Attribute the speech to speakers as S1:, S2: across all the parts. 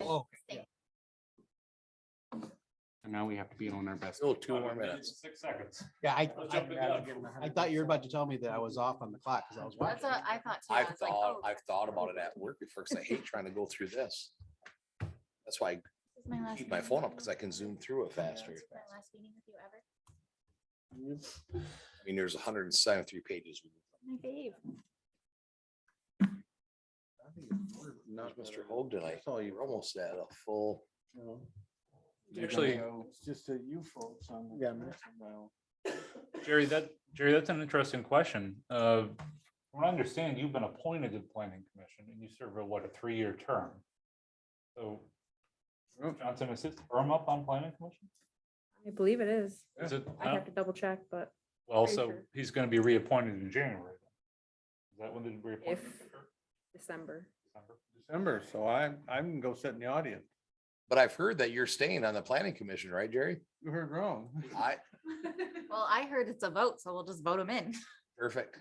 S1: Oh, okay, yeah.
S2: And now we have to be on our best.
S3: Still two more minutes.
S2: Six seconds.
S1: Yeah, I,
S2: Let's jump it
S1: I,
S2: down, give them a hundred
S1: I thought you were about to tell me that I was off on the clock because I was
S4: That's
S1: watching.
S4: what I thought too. I
S3: I've
S4: was like,
S3: thought,
S4: oh,
S3: I've thought about it at work before, because I hate trying to go through this. That's why
S4: this is my
S3: I
S4: last
S3: keep my
S4: meeting
S3: phone up,
S4: with
S3: because
S4: you.
S3: I can zoom through it faster.
S4: This is My last meeting with you ever.
S3: I mean, there's hundred and seventy-three pages.
S4: My fave.
S3: Not Mr. Hoag tonight. Oh, you're almost at a full.
S5: Actually,
S6: It's just a you folks on.
S1: Yeah.
S5: Jerry, that, Jerry, that's an interesting question. Uh, From what I understand, you've been appointed to the planning commission and you serve a, what, a three-year term? So
S6: Oh.
S5: Johnson, is his term up on planning commission?
S7: I believe it is.
S5: Is it,
S7: I have to double check, but
S5: well,
S7: pretty
S5: so
S7: sure.
S5: he's gonna be reappointed in January. then. Is that when the reappointment?
S7: If- December.
S6: December, so I, I can go sit in the audience.
S3: But I've heard that you're staying on the planning commission, right, Jerry?
S6: You heard wrong.
S3: I,
S4: Well, I heard it's a vote, so we'll just vote him in.
S3: perfect.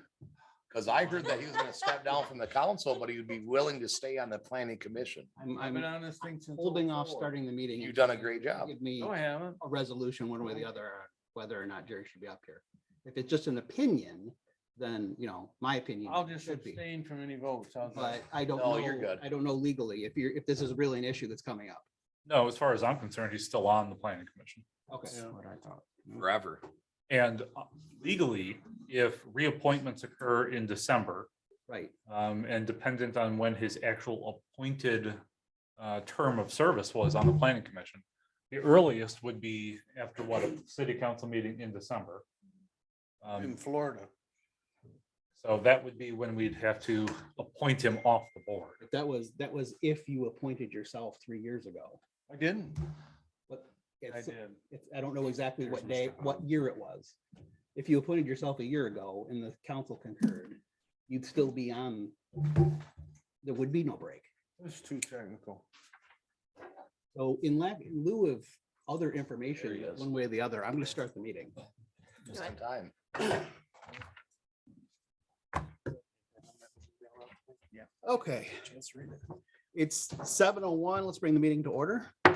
S3: Because I heard that he was gonna step down from the council, but he would be willing to stay on the planning commission.
S1: I'm,
S6: I've been
S1: I'm
S6: on this thing since.
S1: holding off
S6: 04.
S1: starting the meeting.
S3: You've
S1: and
S3: done a great job.
S1: Give me
S6: No, I
S1: a
S6: haven't.
S1: resolution one way or the other, on whether or not Jerry should be up here. If it's just an opinion, then, you know, my opinion.
S6: I'll just
S1: should be.
S6: abstain from any votes. How's
S1: But
S6: that?
S1: I don't
S3: No, you're
S1: know,
S3: good.
S1: I don't know legally if you're, if this is really an issue that's coming up.
S5: No, as far as I'm concerned, he's still on the planning commission.
S1: Okay.
S6: Yeah.
S1: what I thought.
S3: Forever.
S5: And uh, legally, if reappointments occur in December,
S1: Right,
S5: Um, and dependent on when his actual appointed uh, term of service was on the planning commission. The earliest would be after what, a city council meeting in December.
S6: In
S5: Um,
S6: Florida.
S5: so that would be when we'd have to appoint him off the board.
S1: But that was, that was if you appointed yourself three years ago.
S6: I didn't.
S1: But
S6: I
S1: it's,
S6: did.
S1: it's, I don't know exactly what
S2: Here's
S1: day,
S2: Mr.
S1: what year it was. If you appointed yourself a year ago and the council concurred, you'd still be on, there would be no break.
S6: It's too technical.
S1: So in la- in lieu of other information,
S3: he is.
S1: one way or the other, I'm gonna start the meeting.
S3: Just in time.
S1: Okay. It's seven oh one. Let's bring the meeting to order.
S3: There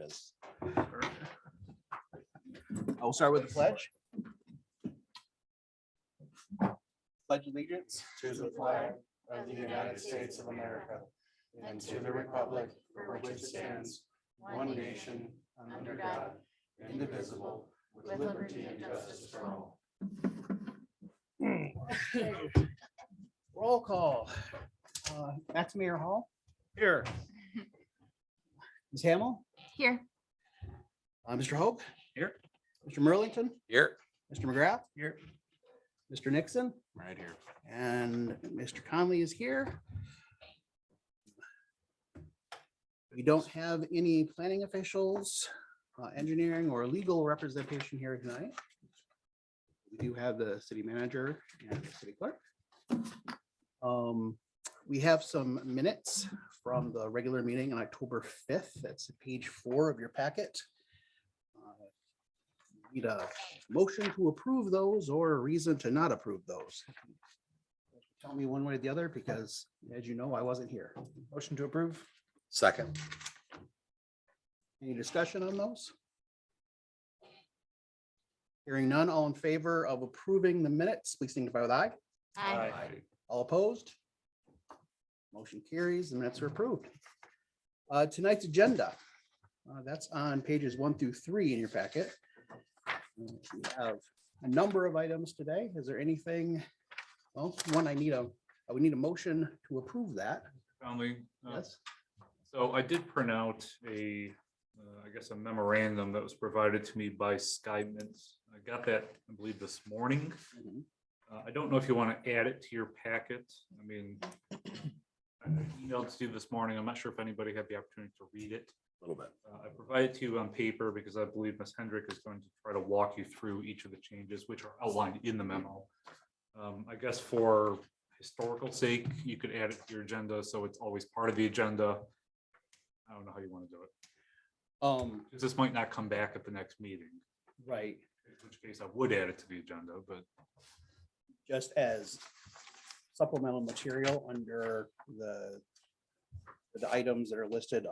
S3: it is.
S1: I'll start with the pledge. Pledge allegiance.
S4: To the flag of the United States of America and to the republic for which it stands, one nation, under God, indivisible, with liberty and justice for all.
S1: Roll call. Uh, That's Mayor Hall. Here. Ms. Hamel,
S4: Here.
S1: uh, Mr. Hope.
S5: Here.
S1: Mr. Merlington,
S3: Here.
S1: Mr. McGrath,
S3: Here.
S1: Mr. Nixon,
S2: Right here.
S1: and Mr. Conley is here. We don't have any planning officials, uh, engineering or legal representation here tonight. We do have the city manager and the city clerk. Um, We have some minutes from the regular meeting on October fifth. That's page four of your packet. Uh, Need a motion to approve those or a reason to not approve those. Tell me one way or the other, because as you know, I wasn't here.
S6: Motion to approve?
S3: Second.
S1: Any discussion on those? Hearing none, all in favor of approving the minutes, please signify with aye.
S4: I
S1: All opposed? Motion carries, the minutes are approved. Uh, Tonight's agenda, uh, that's on pages one through three in your packet. We have a number of items today. Is there anything? Well, one, I need a, I would need a motion to approve that.
S5: Conley, uh,
S1: Yes.
S5: So I did print out a, uh, I guess a memorandum that was provided to me by Skymint. I got that, I believe, this morning.
S1: Mhm.
S5: Uh, I don't know if you want to add it to your packet. I mean, I emailed to you this morning. I'm not sure if anybody had the opportunity to read it.
S3: A Little bit.
S5: Uh, I provided to you on paper because I believe Ms. Hendrick is going to try to walk you through each of the changes which are outlined in the memo. Um, I guess for historical sake, you could add it to your agenda, so it's always part of the agenda. I don't know how you want to do it,
S1: Um,
S5: 'cause this might not come back at the next meeting,
S1: right.
S5: in which case I would add it to the agenda, but
S1: just as supplemental material under the the items that are listed